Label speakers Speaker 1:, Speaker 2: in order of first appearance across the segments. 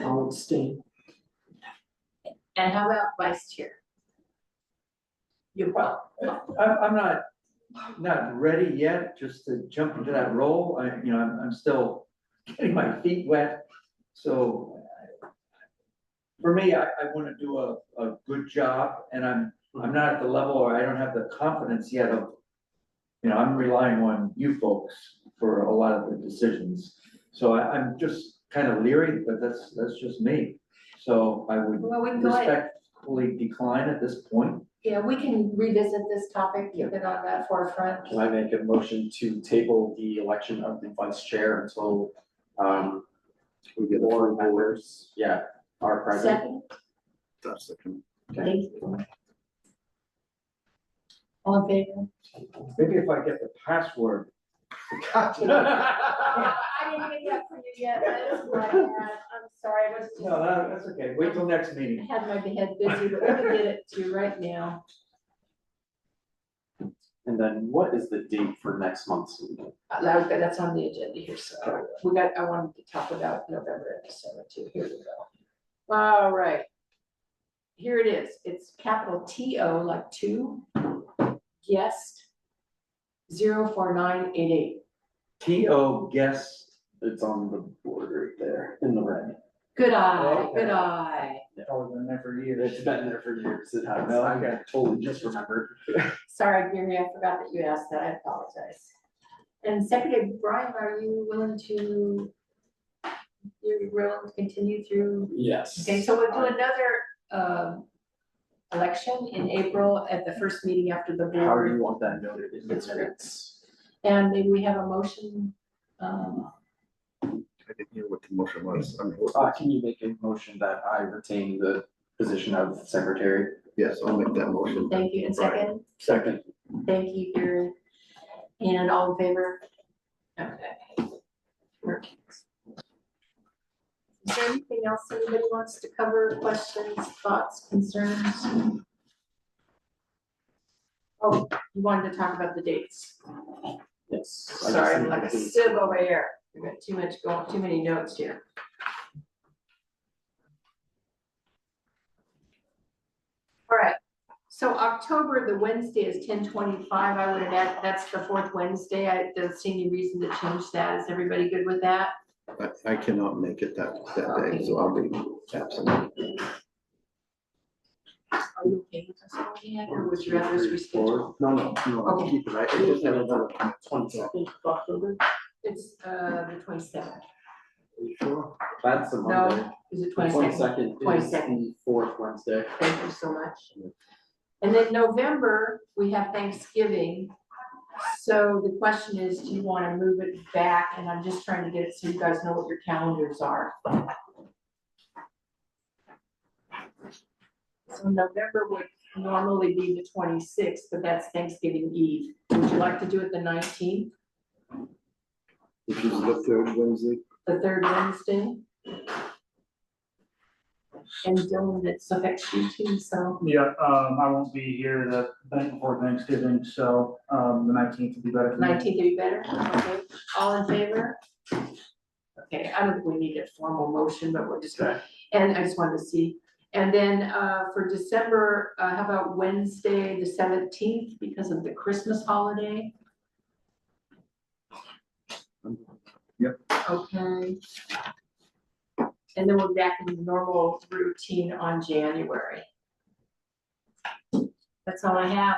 Speaker 1: I'll abstain.
Speaker 2: And how about vice chair? You're welcome.
Speaker 3: I'm, I'm not, not ready yet, just to jump into that role, I, you know, I'm, I'm still getting my feet wet, so. I- For me, I, I wanna do a, a good job, and I'm, I'm not at the level, or I don't have the confidence yet of, you know, I'm relying on you folks for a lot of the decisions, so I, I'm just kind of leery, but that's, that's just me. So I would
Speaker 2: Well, we can go ahead,
Speaker 3: respectfully decline at this point.
Speaker 2: yeah, we can revisit this topic, keep it on that forefront.
Speaker 4: Can I make a motion to table the election of the vice chair until, um,
Speaker 5: We get a
Speaker 4: four members, yeah, are present?
Speaker 2: Second,
Speaker 5: That's the con-
Speaker 2: thank you. All in favor?
Speaker 3: Maybe if I get the password.
Speaker 2: I didn't get that for you yet, that is what I had, I'm sorry, I was just.
Speaker 3: No, that- that's okay, wait till next meeting.
Speaker 2: I had my head busy, but we can get it to you right now.
Speaker 4: And then what is the date for next month's meeting?
Speaker 2: Uh, that- That's on the agenda here, so we got, I wanted to talk about November and December too, here we go. All right. Here it is, it's capital T O, like two, guest, zero four nine eight eight.
Speaker 3: T O guess,
Speaker 4: It's on the board right there in the red.
Speaker 2: Good eye,
Speaker 3: Okay.
Speaker 2: good eye.
Speaker 3: oh, I never either.
Speaker 4: It's been there for years. It has.
Speaker 3: No,
Speaker 4: I
Speaker 3: okay.
Speaker 4: totally just remembered.
Speaker 2: Sorry, Gary, I forgot that you asked that, I apologize. And Secretary Brian, are you willing to, you're willing to continue through
Speaker 4: Yes.
Speaker 2: Okay, so we'll do another, um, election in April at the first meeting after the
Speaker 4: How do
Speaker 2: board.
Speaker 4: you want that noted in the minutes?
Speaker 2: And maybe we have a motion, um,
Speaker 5: I didn't hear what the motion was. I mean,
Speaker 4: Uh, can you make a motion that I retain the position of secretary?
Speaker 5: yes, I'll make that motion.
Speaker 2: thank you, and
Speaker 5: Right.
Speaker 2: second,
Speaker 4: Second.
Speaker 2: thank you, Gary. And all in favor? Okay. Perfect. Is there anything else anybody wants to cover, questions, thoughts, concerns? Oh, you wanted to talk about the dates.
Speaker 4: Yes. I just
Speaker 2: Sorry, I'm
Speaker 4: need
Speaker 2: like a
Speaker 4: to-
Speaker 2: sieve over here. We've got too much going, too many notes here. All right, so October, the Wednesday is ten twenty-five. I would have added, that's the fourth Wednesday. I don't see any reason to change that. Is everybody good with that?
Speaker 5: I, I cannot make it that, that day, so I'll be absent.
Speaker 2: Are you okay with us going ahead or would you rather us reschedule?
Speaker 4: No, no, no,
Speaker 2: Okay.
Speaker 4: keep it, I I just have another twenty-second.
Speaker 2: It's, uh, the twenty-seventh.
Speaker 4: Sure. That's a Monday.
Speaker 2: No, is it twenty-second?
Speaker 4: Twenty-second is
Speaker 2: 22nd.
Speaker 4: the fourth Wednesday.
Speaker 2: Thank you so much. And then November, we have Thanksgiving. So the question is, do you want to move it back? And I'm just trying to get it so you guys know what your calendars are. So November would normally be the twenty-sixth, but that's Thanksgiving Eve. Would you like to do it the nineteenth,
Speaker 5: Which is the third Wednesday.
Speaker 2: the third Wednesday? And Dylan, it affects you too, so.
Speaker 6: Yeah, um, I won't be here the night before Thanksgiving, so, um, the nineteenth will be better for me.
Speaker 2: Nineteenth would be better, okay, all in favor? Okay, I don't think we need a formal motion, but we're just gonna, and I just wanted to see. And then, uh, for December, uh, how about Wednesday, the seventeenth, because of the Christmas holiday?
Speaker 3: Yep.
Speaker 2: Okay. And then we're back in the normal routine on January. That's all I have.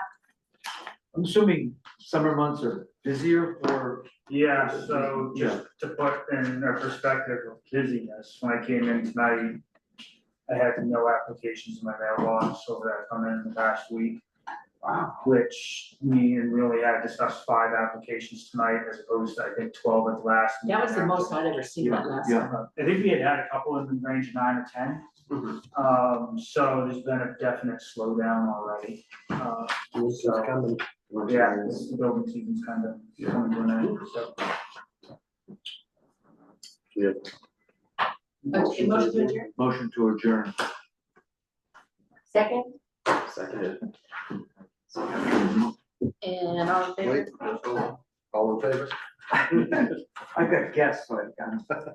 Speaker 3: I'm assuming summer months are busier for,
Speaker 6: Yeah, so just to put in a perspective of busyness, when I came in tonight, I had no applications in my mailbox over that come in the past week. Which me and really I discussed five applications tonight as opposed to, I think, twelve at the last.
Speaker 2: That was the
Speaker 6: meeting.
Speaker 2: most I'd ever seen that last.
Speaker 3: Yeah,
Speaker 6: Uh, I think we had had a couple in the range of nine or ten.
Speaker 4: Mhm.
Speaker 3: Mm-hmm.
Speaker 6: Um, so there's been a definite slowdown already. Uh, so, yeah, this building season's kind of coming to an end, so.
Speaker 2: Okay, motion to adjourn.
Speaker 3: motion to adjourn.
Speaker 2: Second,
Speaker 4: Seconded.
Speaker 2: and all in favor?
Speaker 5: Wait, all in favor?
Speaker 3: I've got guests, like, I'm